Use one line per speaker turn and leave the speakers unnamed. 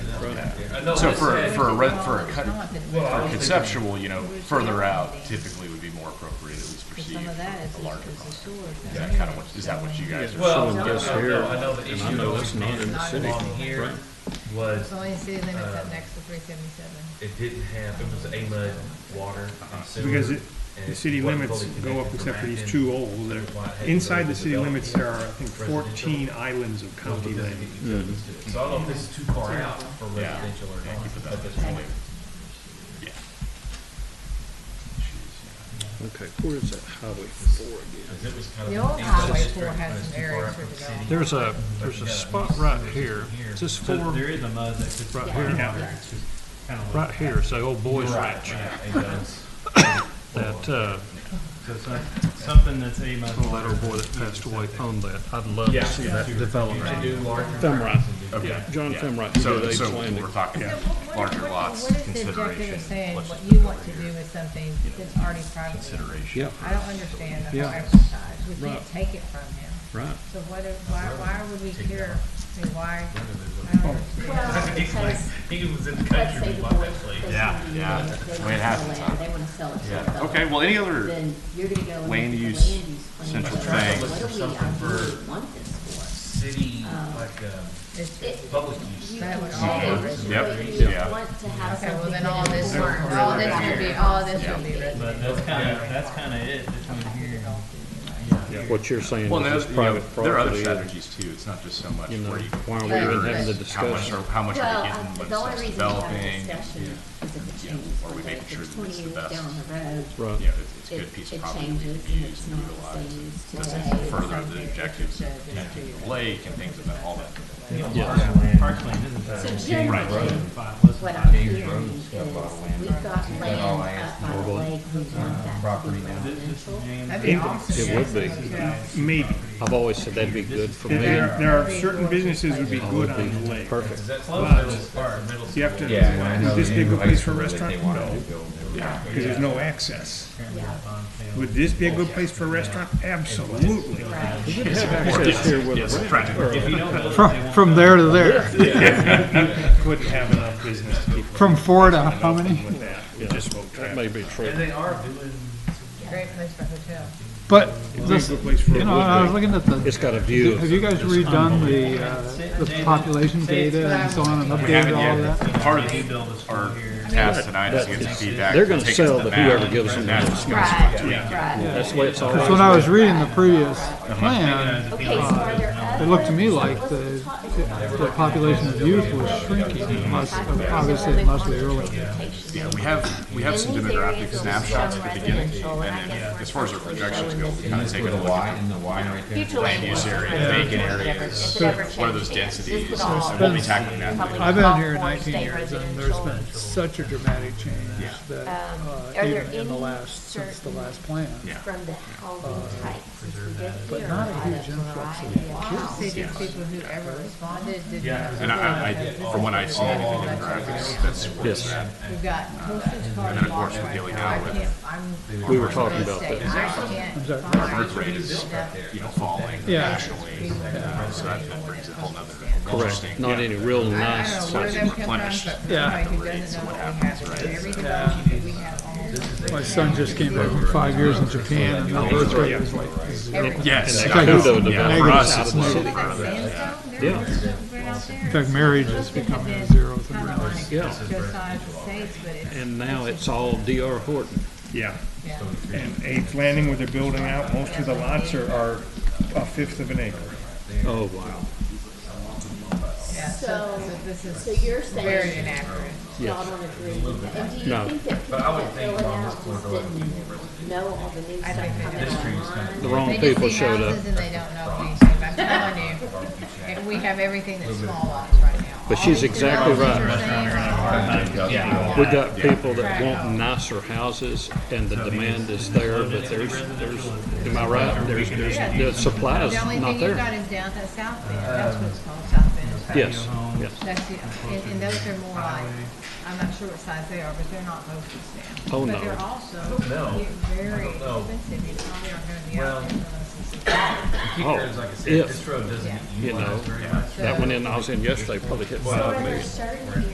I know
So
this
for,
had-
for a, re- for a cut,
Well, I don't
for
think-
conceptual, you know, further out typically would be more appropriate, at least perceived,
some of that is,
for a larger
is
project.
assured.
Is that kind of what, is that what you guys are?
Well,
Someone
no,
gets
no,
here,
no, I know the
and I
issue
know
always
it's not in the
been
city,
along here
right.
It's
was,
only saying then it's
Um,
up next to three seventy-seven.
it didn't have, it was AMUD water
Uh-huh.
and sewer.
Because it-
and
the
it
city
wasn't
limits
fully
go up
connected to
except for these
Rankin.
two olds that
Why it had
are,
to
inside
go
the city
develop
limits,
here.
there are, I think,
Residential.
fourteen islands of
Well,
county
but this
land.
is utilities too.
Mm-hmm.
So I don't know if this is too far out for
Yeah.
residential or
Thank you for
not
that.
at this
That's
point.
Yeah. Jeez,
Okay, where is that highway four again?
Because it was kind of
The
an
old
ancient
highway
district,
four
but
has
it's
some
too far
areas
out
for
from the
development.
city.
There's a, there's a spot right here, Is this
So
four,
There is a mud that could.
Right
fall
here.
out there. It's just kinda like-
right here, so Old Boys Ranch,
Right, right, AMUD's.
that, uh,
So some- Something that's a mud.
oh, that old boy that passed away owned that. I'd love to see that
To
development.
do larger.
Thumright.
Okay.
Yeah.
John
yeah.
Femright, who
So,
did Apes
so
Landing.
we're talking
So what- what-
larger
what-
lots,
What is the objective
consideration.
of saying
let's
what
just
you
put it
want
over
to
here,
do with something that's already privately owned?
Consideration.
Yeah,
I don't understand the whole
Yeah.
exercise. We can't
Right.
take it from him.
right.
So what, if- why, why would we care? I mean, why? I don't understand.
Well, because,
He was in the
let's
country,
say
we
the
bought
board,
that place.
they
Yeah,
want
yeah.
land, they
That's the way
want
it happens,
land,
huh?
they wanna sell it to
Yeah.
somebody.
Okay, well, any other,
Then you're gonna go and look
land
at the
use
land use plan,
central
and say,
thing.
What do we,
Something for-
ideally want this for?
City,
Um,
like,
uh,
um,
It's-
It-
public use.
You
That
can
would
change
all-
it,
Yep,
but you
yeah.
want to have
Okay, well
something
then
that
all this,
will
would-
work.
all this would be, all this would be
But
residential.
that's kinda, that's kinda it between here and.
What you're saying
well, no,
is it's
you know,
private
there are other
property,
strategies too. It's not just so much
you know,
where you.
why are we
But-
even having the
but-
How much
discussion?
are, how much are
Well,
we getting,
I-
what
the only
stuff's
reason we have a
developing?
discussion is if it
Yeah.
changes,
Or we
like
making
if
sure
it's
that
twenty
it's the
years
best.
down the
You
road.
Right,
know, it's, it's a good piece of
it
property that
changes
could be
and
used
it's
and utilized. It
not the same as
Doesn't
today.
further the objectives of managing the lake and things of that, all that.
Yeah. Park lane isn't
So
that.
generally,
Five, less than
what
five.
I'm hearing is, we've got land up by the lake, we want that to be residential.
That'd be awesome.
it would be.
Maybe.
I've always said that'd be good for me.
There, there are certain businesses would be good on the lake.
Is
Perfect.
that close to this part, middle
You have
school?
to,
Yeah, I know
is this
the
big a place for a
that
restaurant?
they wanted
No,
to build. They were-
because there's no access.
Yeah.
Would this be a good place for a restaurant? Absolutely.
We would have access here with
Yes,
a
practical.
If you don't build it, they
From,
won't
from
build it.
there to there,
Couldn't have enough business to keep
from four to how many?
with that. It just won't
That
travel.
may be true.
And they are doing,
Great place for a hotel.
But,
It'd be a
this,
good place for
you
a
know, I was looking at
It's
the,
got a view
have
of
you guys redone the, uh, the population data and so on and
We haven't
updated all
yet.
that?
Part of
If you build a school
our
here.
task tonight is to get some feedback.
They're gonna
take us
sell
the
to
map,
whoever gives them
and
the
that's-
Right,
Yeah.
right.
That's the way it's
Because when
always.
I was reading the previous plan,
Okay, so are there
it
other?
looked to me like
what's
the,
top-
the population of youth was shrinking, must- obviously it must be early.
Yeah, we have, we have some
These
demographic
areas will
snapshots
show
at the beginning,
residential, and I
and then
guess
as far as our
we're-
projections go, we kind
And
of
this
take
with
a
the
look
Y
at
and the Y right there.
Future
land use area, vacant areas, what are those densities, and we'll be tackling that.
I've been here 19 years, and there's been such a dramatic change that, uh,
Um, are there
even in the
any
last, since the
certain-
last plan.
Yeah. Uh,
From the housing types, since we did hear a
not a
lot
huge
of variety of
See,
houses.
these people who ever responded didn't. have-
And I, I, from what I see, I think the demographics, that's what
Yes,
We've got postage card
then, of
laws
course, we're
right
dealing
now. I
now with
can't- I'm-
we were talking about
I
that.
can't
our
find-
birth rate is, you know, falling
Yeah.
nationally, uh, so that that brings a whole nother
Correct.
interesting.
Not any real
I
nice.
don't know where them come from, but
replenished.
for
Yeah.
somebody who doesn't know what we have, for every development that we have almost.
My son just came back from five years in Japan, and the birth rate was like zero.
Yes.
And that
Yeah, for
Kudo development
us,
out
it's
of the
low.
city.
In fact, marriage is becoming a zero thing.
Yeah.
Yeah.
And now it's all D.R. Horton.
Yeah. And Apes Landing, where they're building out, most of the lots are, are a fifth of an acre.
Oh, wow.
Yeah, so
So-
this is
So you're
very
saying
inaccurate.
y'all don't agree with that? And do
No.
you think that people that fill it out just didn't know all the new stuff coming online?
The wrong
They just
people
see
showed up.
houses And they don't know anything, I'm telling you. And we have everything that's small lots right now.
But
All
she's
these
exactly
developments
right.
you're saying are all
We got people that want nicer houses and the demand is there, but there's, there's, am I right? There's, there's, the supply is
The only
not
thing you've got
there.
is down at South Bend, that's what's called South Bend.
Yes, yes.
That's, the- and, and those are more like, I'm not sure what size they are, but they're not mostly stamps.
Oh, no.
But they're also
know.
very
I don't know.
expensive, you probably aren't gonna be
Well,
out there unless it's.
Oh,
because like I said,
if,
this road doesn't get
You know,
utilized very much.
That one in, I was in yesterday, probably hit
So
five
are there
million.
certain